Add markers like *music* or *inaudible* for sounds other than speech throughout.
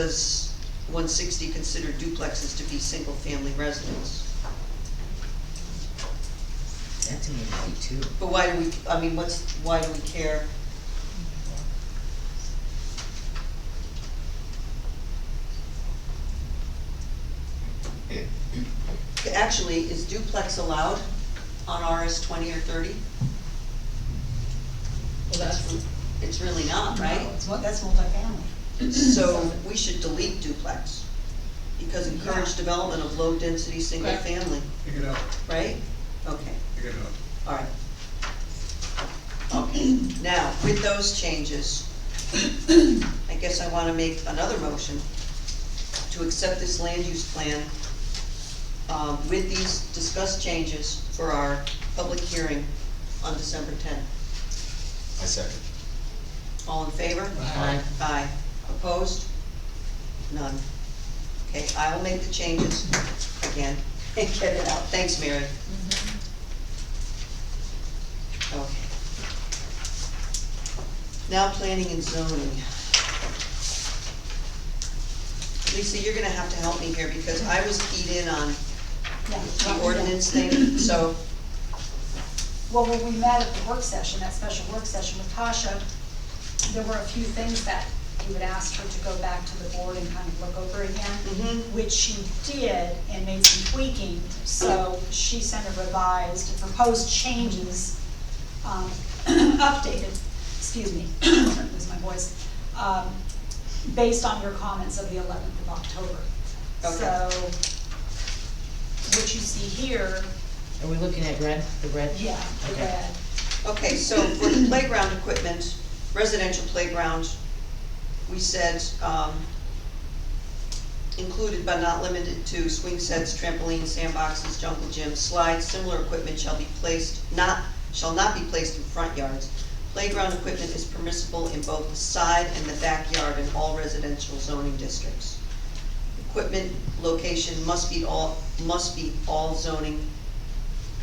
does one sixty consider duplexes to be single-family residence? That's an eighty too. But why do we, I mean, what's, why do we care? Actually, is duplex allowed on RS twenty or thirty? Well, that's, It's really not, right? No, it's what, that's multifamily. So we should delete duplex, because encourage development of low-density, single-family, Pick it up, right? Okay, pick it up. all right. *clears throat* Okay, now, with those changes, *clears throat* I guess I wanna make another motion to accept this land use plan, um, with these discussed changes for our public hearing on December tenth. I second. All in favor? Aye. Aye. Opposed? None. Okay, I will make the changes again *laughs* and get it out. Thanks, Mary. Okay. Now planning and zoning. Lisa, you're gonna have to help me here because I was keyed in on Yeah, the Oh, yeah. ordinance thing, so, Well, when we met at the work session, that special work session with Tasha, there were a few things that you would ask her to go back to the board and kind of look over again, Mhm. which she did and made some tweaking, so she sent a revised, proposed changes, um, *clears throat* updated, excuse me, *clears throat* lose my voice, um, based on your comments of the eleventh of October. Okay. So, what you see here, Are we looking at red, the red? yeah, the Okay. red, okay, so for the playground equipment, residential playground, we said, um, included but not limited to swing sets, trampolines, sandboxes, jungle gyms, slides, similar equipment shall be placed, not, shall not be placed in front yards. Playground equipment is permissible in both the side and the backyard in all residential zoning districts. Equipment location must be all, must be all zoning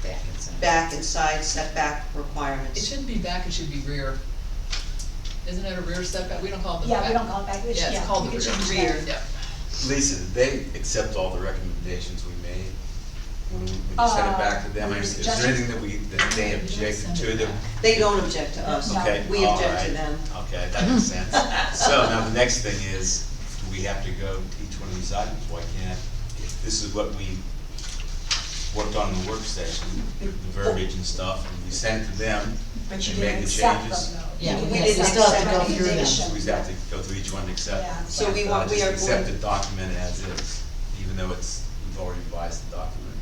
Back inside. back and side setback it requirements. shouldn't be back, it should be rear. Isn't it a rear setback? We don't call it the back. Yeah, we don't call it back, which, yeah. Yeah, it's called the it should be rear. back. Yeah. Lisa, did they accept all the recommendations we made? When we when you sent it back to them, Uh, is there anything that we, that they objected to them? They don't object to us, No. Okay, we all object to right. them. Okay, that makes sense. So now the next thing is, do we have to go to each one of these items? Why can't, if this is what we worked on in the work session, the verbiage and stuff, and we sent to them, But you And make didn't the accept changes. them, though. Yeah, we You didn't didn't accept still have to go through them. recommendation. we have to go through each one to accept. Yeah. So we Uh, want, we just are Accept the going, document as is, even though it's, we've already revised the document.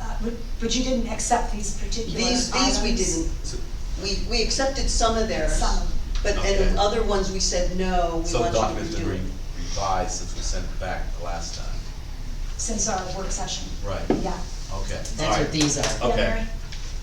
Uh, But, but you didn't accept these particular items. these, these we didn't, So- we, we accepted some of theirs, Some of them. but, Okay. and other ones we said, no, we So the want you document's to been redo re- it. revised since we sent it back the last time. Since our work session, Right, yeah. okay. all That's right. what these are. Yeah, Okay. Mary?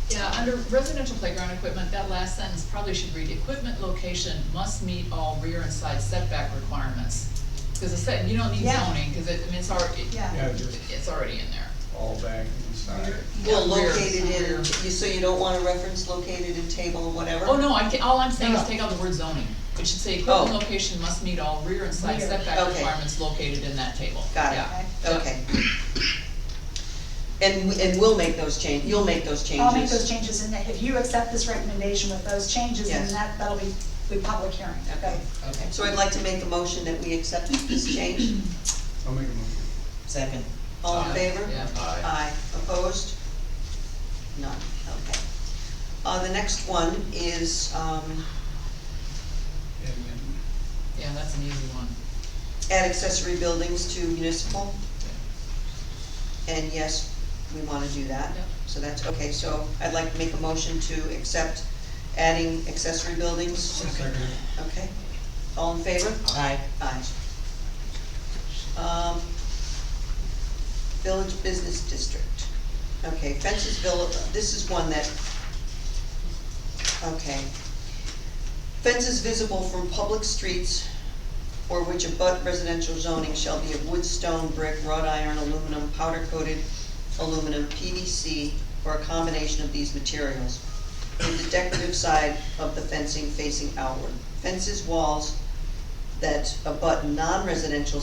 Yeah, under residential playground equipment, that last sentence probably should read, equipment location must meet all rear and side setback requirements. Because it said, you don't need Yeah. zoning, because it, I mean, it's already, Yeah. Yeah, just it's already in there. all back inside. Well, Yeah, rear. located in, Rear. you- so you don't wanna reference located in table or whatever? Oh, no, I, ca- all I'm saying is No. take out the word zoning. It should say Oh. equipment location must meet all rear and side Rear. setback Okay. requirements located in that table. Got it. Yeah. Yeah. Okay. And, we- and we'll make those change, you'll make those changes. I'll make those changes, and if you accept this recommendation with those changes, then Yes. that, that'll be, be public hearing, okay? Okay. So I'd like to make a motion that we accept this change, I'll make a motion. Second. all in Aye. favor? Yeah. Aye. Aye, opposed? None, okay. Uh, the next one is, um, And then Yeah, that's an easy one. add accessory buildings to municipal. And yes, we wanna do that, Yep. so that's, okay, so I'd like to make a motion to accept adding accessory buildings, second, okay? All in favor? Aye. Aye. Um, Village Business District. Okay, fences, vill- this is one that, okay. Fences visible from public streets or which abut residential zoning shall be of wood, stone, brick, wrought iron, aluminum, powder coated aluminum, PVC, or a combination of these materials. With the decorative side of the fencing facing outward. Fences, walls, that abut non-residential